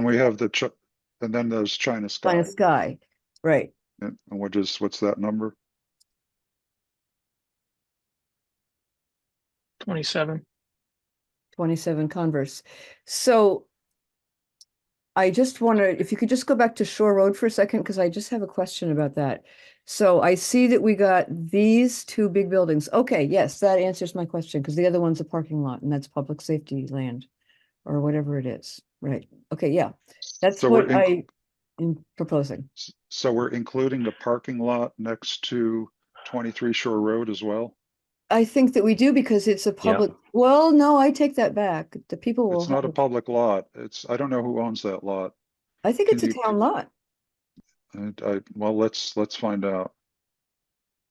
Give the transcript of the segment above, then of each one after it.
And we have the, Chi- and then there's China Sky, China Sky, right? and which is, what's that number? Twenty-seven. Twenty-seven Converse. So I just wonder if you could just go back to Shore Road for a second, because I just have a question about that. So I see that we got these two big buildings. Okay, yes, that answers my question, because the other one's a parking lot and that's public safety land or whatever it is, right? Okay, yeah, that's So we're what inc- I am proposing. S- So we're including the parking lot next to twenty-three Shore Road as well? I think that we do because it's a public, well, no, I take that back. The people will. It's not a have- public lot. It's, I don't know who owns that lot. I think it's a can you- town lot. I, I, well, let's, let's find out.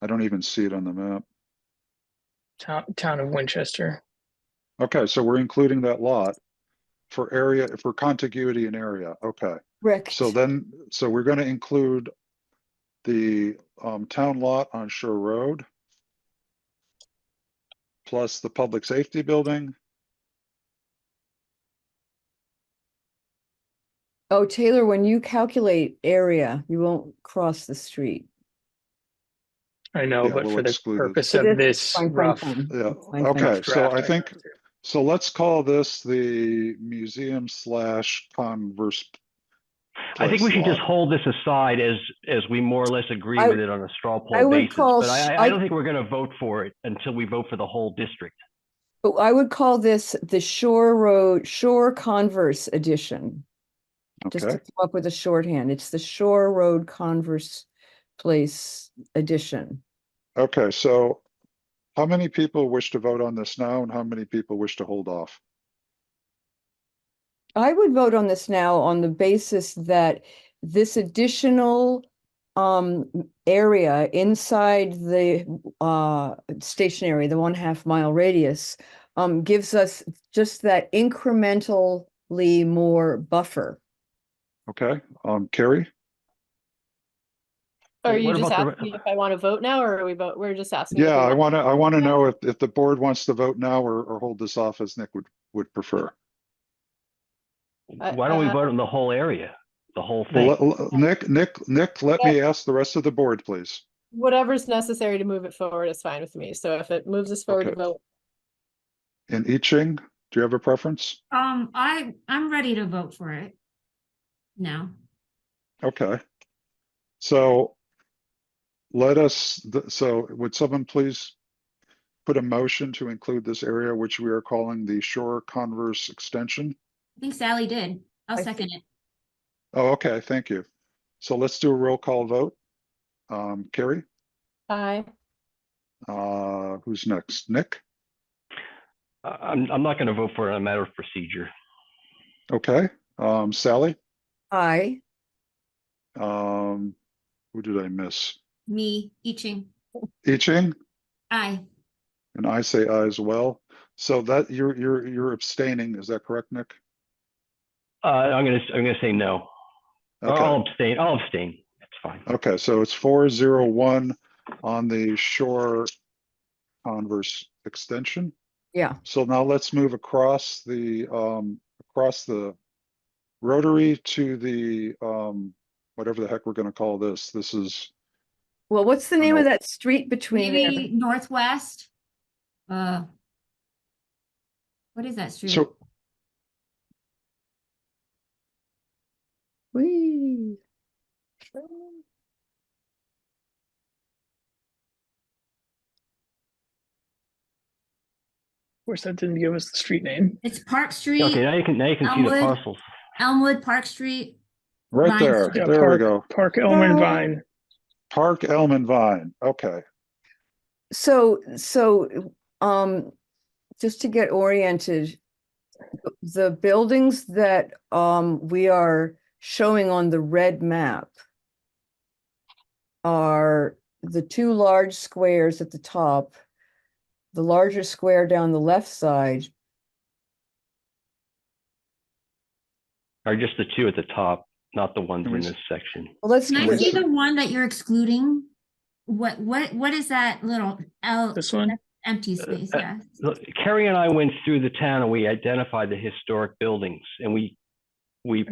I don't even see it on the map. Town, town of Winchester. Okay, so we're including that lot for area, for contiguity and area. Okay. Correct. So then, so we're gonna include the um town lot on Shore Road. Plus the public safety building, Oh, Taylor, when you calculate area, you won't cross the street. I know, Yeah, but we'll for the exclude it. purpose For of this, this fine, fine, rough. fine. yeah, That's fine, thank okay, rough so draft I think, got through. so let's call this the museum slash converse. I think we place should just lot. hold this aside as, as we more or less agree I- with it on a straw I poll would basis. call But s- I, I- I don't think we're going to vote for it until we vote for the whole district. But I would call this the Shore Road, Shore Converse Edition. Just to Okay, come up with a shorthand. It's the Shore Road Converse Place Edition. okay, so how many people wish to vote on this now and how many people wish to hold off? I would vote on this now on the basis that this additional um area inside the uh stationary, the one half mile radius um gives us just that incrementally more buffer. Okay, um, Carrie? Are Wait, you what just about the re- asking if I want to vote now or are we vote, we're just asking? if we Yeah, I want- wanna, I wanna know if, if the board wants to vote now or, or hold this off as Nick would, would prefer. I- Why don't we uh, vote on the whole area, the whole Well, thing? let- let- Nick, Nick, Nick, let me ask the rest of the board, please. Whatever's necessary to move it forward is fine with me. So if it moves us forward to Okay. vote, And I Ching, do you have a preference? Um, I, I'm ready to vote for it. Now, Okay. So let us, th- so would someone please put a motion to include this area, which we are calling the Shore Converse Extension? I think Sally did. I'll I second it. Oh, okay, thank you. So let's do a roll call vote. Um, Carrie, aye. uh, who's next? Nick? I- I'm, I'm not going to vote for it on a matter of procedure. Okay, um, Sally? I, Um, who did I miss? Me, Iching, I Ching? aye. And I say aye as well. So that you're you're you're abstaining, is that correct, Nick? Uh, I'm going to, I'm going to say no. Or I'll Okay, abstain, I'll abstain. That's fine. okay, so it's four zero one on the shore converse extension. yeah, So now let's move across the um across the rotary to the um whatever the heck we're gonna call this. This is well, what's the name of Nope. that street between there? Maybe Northwest. Uh. What is that street? so Whee. Of course, that didn't give us the street name. It's Park Okay, Street, now you can, now you can see the Elmwood. parcels. Elmwood, Park Street. right Vine there, Street. Yeah, there we park. go. Park Elm and No. Vine. Park Elm and Vine, okay. So, so, um, just to get oriented, the buildings that, um, we are showing on the red map are the two large squares at the top, the larger square down the left side, Are just the two at the top, not the ones Can we in s- this section. well, let's, Can I Wait, see keep it- so- the one that you're excluding? What, what, what is that little L This one. empty space? uh, Yeah. Look, Carrie and I went through the town and we identified the historic buildings and we, we